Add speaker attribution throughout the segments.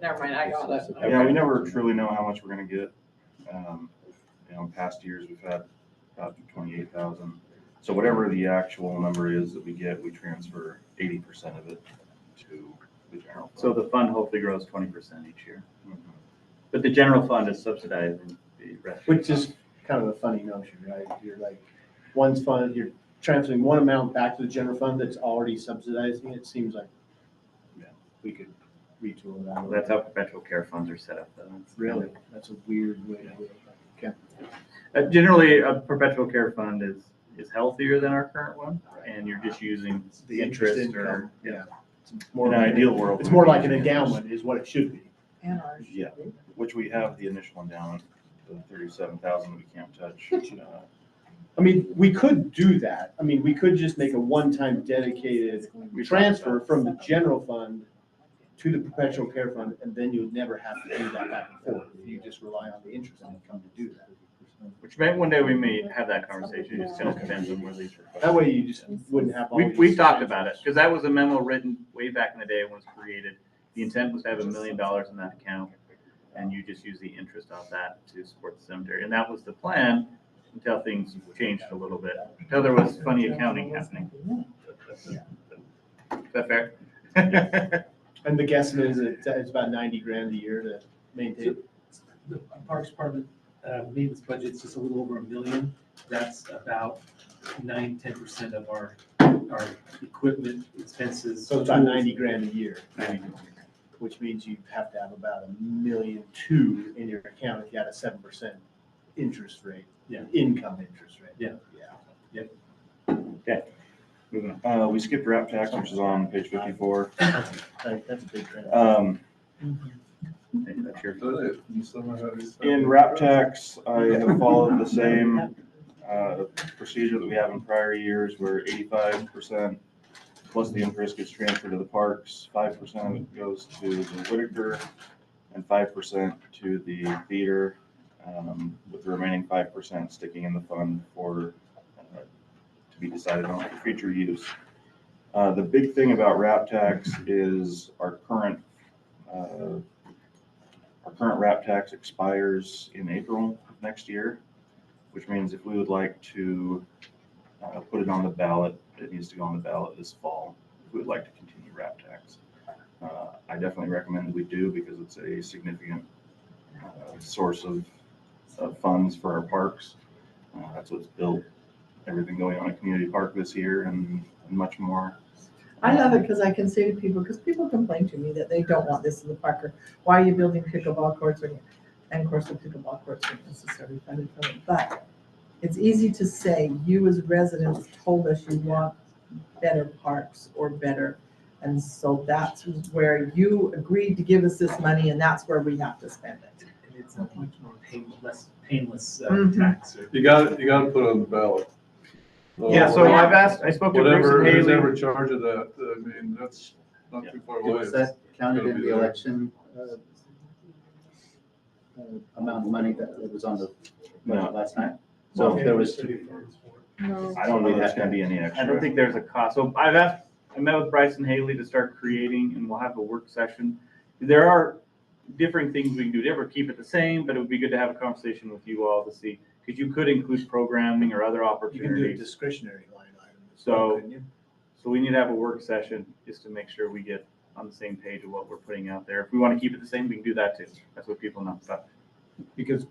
Speaker 1: never mind, I got it.
Speaker 2: Yeah, we never truly know how much we're gonna get. Um, You know, in past years, we've had about twenty-eight thousand. So whatever the actual number is that we get, we transfer eighty percent of it to the general. fund.
Speaker 3: So the fund hopefully grows twenty percent each year.
Speaker 2: Mhm.
Speaker 3: But the general fund is subsidizing the rest.
Speaker 4: Which is kind of a funny notion, right? You're like, one's fund, you're transferring one amount back to the general fund that's already subsidizing. It seems like yeah, we could retool that.
Speaker 3: Well,
Speaker 4: a little
Speaker 3: That's
Speaker 4: bit.
Speaker 3: how perpetual care funds are set up though. It's-
Speaker 4: Really, that's a weird way to do it. Okay.
Speaker 3: Uh, Generally, a perpetual care fund is, is healthier than our current one
Speaker 4: Right.
Speaker 3: and you're just using
Speaker 4: The
Speaker 3: interest
Speaker 4: income,
Speaker 3: or.
Speaker 4: Yeah. It's more
Speaker 2: In an
Speaker 4: like-
Speaker 2: ideal world.
Speaker 4: It's more like an endowment is what it should be.
Speaker 1: And ours.
Speaker 2: Yeah, which we have the initial endowment, the thirty-seven thousand we can't touch. Uh,
Speaker 4: I mean, we could do that. I mean, we could just make a one-time dedicated
Speaker 2: we
Speaker 4: transfer from the general fund to the perpetual care fund, and then you would never have to do that back and forth. You just rely on the interest income to do that.
Speaker 3: Which may, one day we may have that conversation. It just kind of depends on where these requests.
Speaker 4: That way you just wouldn't have all
Speaker 3: We,
Speaker 4: these
Speaker 3: we've talked about it,
Speaker 4: transfers.
Speaker 3: because that was a memo written way back in the day when it was created. The intent was to have a million dollars in that account, and you just use the interest off that to support the cemetery. And that was the plan until things changed a little bit, until there was funny accounting happening. Is that fair?
Speaker 4: And the guesstimate is that it's about ninety grand a year to maintain.
Speaker 5: The Parks Department, uh, maintenance budget's just a little over a million. That's about nine, ten percent of our, our equipment expenses.
Speaker 4: So it's about ninety grand a year,
Speaker 3: Well,
Speaker 4: which means you have to have about a million two in your account if you had a seven percent interest rate.
Speaker 5: Yeah.
Speaker 4: Income interest rate.
Speaker 5: Yeah.
Speaker 4: Yeah.
Speaker 2: Uh, we skipped wrap tax, which is on page fifty-four.
Speaker 4: Like, That's a big trend.
Speaker 2: Um, In rap tax, I have followed the same uh, procedure that we have in prior years where eighty-five percent plus the interest gets transferred to the parks, five percent of it goes to the Whitaker and five percent to the theater, um, with the remaining five percent sticking in the fund for, uh, to be decided on for future use. Uh, The big thing about rap tax is our current uh, our current wrap tax expires in April of next year, which means if we would like to uh, put it on the ballot, it needs to go on the ballot this fall. If we would like to continue wrap tax. Uh, I definitely recommend that we do because it's a significant uh, source of, of funds for our parks. Uh, That's what's built, everything going on at Community Park this year and and much more.
Speaker 1: I love it because I can say to people, because people complain to me that they don't want this in the park, or why are you building pickleball courts? when- And of course, the pickleball courts aren't necessarily funded from it, but it's easy to say, you as residents told us you want better parks or better. And so that's where you agreed to give us this money and that's where we have to spend it.
Speaker 5: And It's a much more painless, painless uh,
Speaker 1: Mhm.
Speaker 5: tax. or-
Speaker 6: You got, you got to put it on the ballot. Uh,
Speaker 3: Yeah, so I've asked, I spoke to Bruce
Speaker 6: Whatever,
Speaker 3: and
Speaker 6: who's
Speaker 3: Haley.
Speaker 6: ever charge of that, I mean, that's not too far away.
Speaker 7: Was that counted in the election uh, uh, amount of money that that was on the budget last night? So if there was,
Speaker 2: I don't know if there's going to be any extra.
Speaker 3: I don't think there's a cost. So I've asked, I met with Bryce and Haley to start creating, and we'll have a work session. There are different things we can do. to ever keep it the same, but it would be good to have a conversation with you all to see, because you could include programming or other
Speaker 4: You can do a
Speaker 3: opportunities.
Speaker 4: discretionary line item. as well,
Speaker 3: So-
Speaker 4: couldn't you?
Speaker 3: So we need to have a work session just to make sure we get on the same page of what we're putting out there. If we want to keep it the same, we can do that too. That's what people know. But
Speaker 4: Because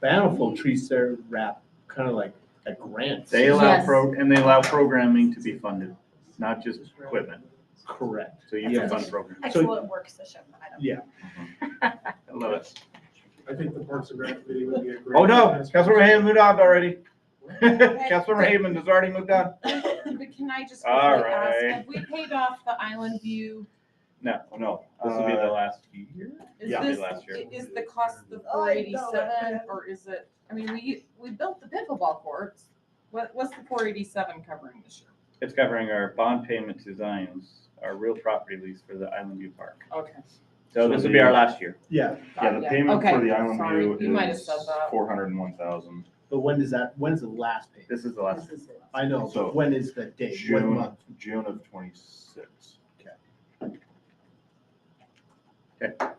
Speaker 4: Bountiful treats their wrap kind of like a grant.
Speaker 3: they allow
Speaker 8: Yes.
Speaker 3: pro, and they allow programming to be funded, not just equipment.
Speaker 4: Correct.
Speaker 3: So you can
Speaker 4: Yes.
Speaker 3: fund programming.
Speaker 8: Excellent work session. I don't-
Speaker 4: Yeah.
Speaker 3: I love it.
Speaker 9: I think the Parks and Rec committee would be a great.
Speaker 3: Oh, no, Councilmember Hammond moved on already. Councilmember
Speaker 8: Councilmember
Speaker 3: Hammond has already moved on.
Speaker 8: But can I just
Speaker 3: All
Speaker 8: quickly ask,
Speaker 3: right.
Speaker 8: have we paid off the Island View?
Speaker 3: No,
Speaker 2: No.
Speaker 3: this will be
Speaker 2: Uh,
Speaker 3: the last year.
Speaker 8: Is
Speaker 3: Yeah.
Speaker 8: this-
Speaker 3: Last year.
Speaker 8: i- Is the cost the four eighty-seven or is it, I mean, we, we built the pickleball courts. What, what's the four eighty-seven covering this year?
Speaker 3: It's covering our bond payment to Zions, our real property lease for the Island View Park.
Speaker 8: Okay.
Speaker 3: So this will be our last year.
Speaker 4: Yeah,
Speaker 2: Yeah, the
Speaker 8: Yeah,
Speaker 2: payment for
Speaker 8: okay,
Speaker 2: the
Speaker 8: sorry,
Speaker 2: Island
Speaker 8: you
Speaker 2: View
Speaker 8: might have
Speaker 2: is
Speaker 8: said that.
Speaker 2: four hundred and one thousand.
Speaker 4: but when does that, when's the last pay?
Speaker 3: This is the last.
Speaker 8: This is it.
Speaker 4: I know,
Speaker 2: So-
Speaker 4: but when is the date? What
Speaker 2: June,
Speaker 4: month?
Speaker 2: June of twenty-six.
Speaker 3: Okay.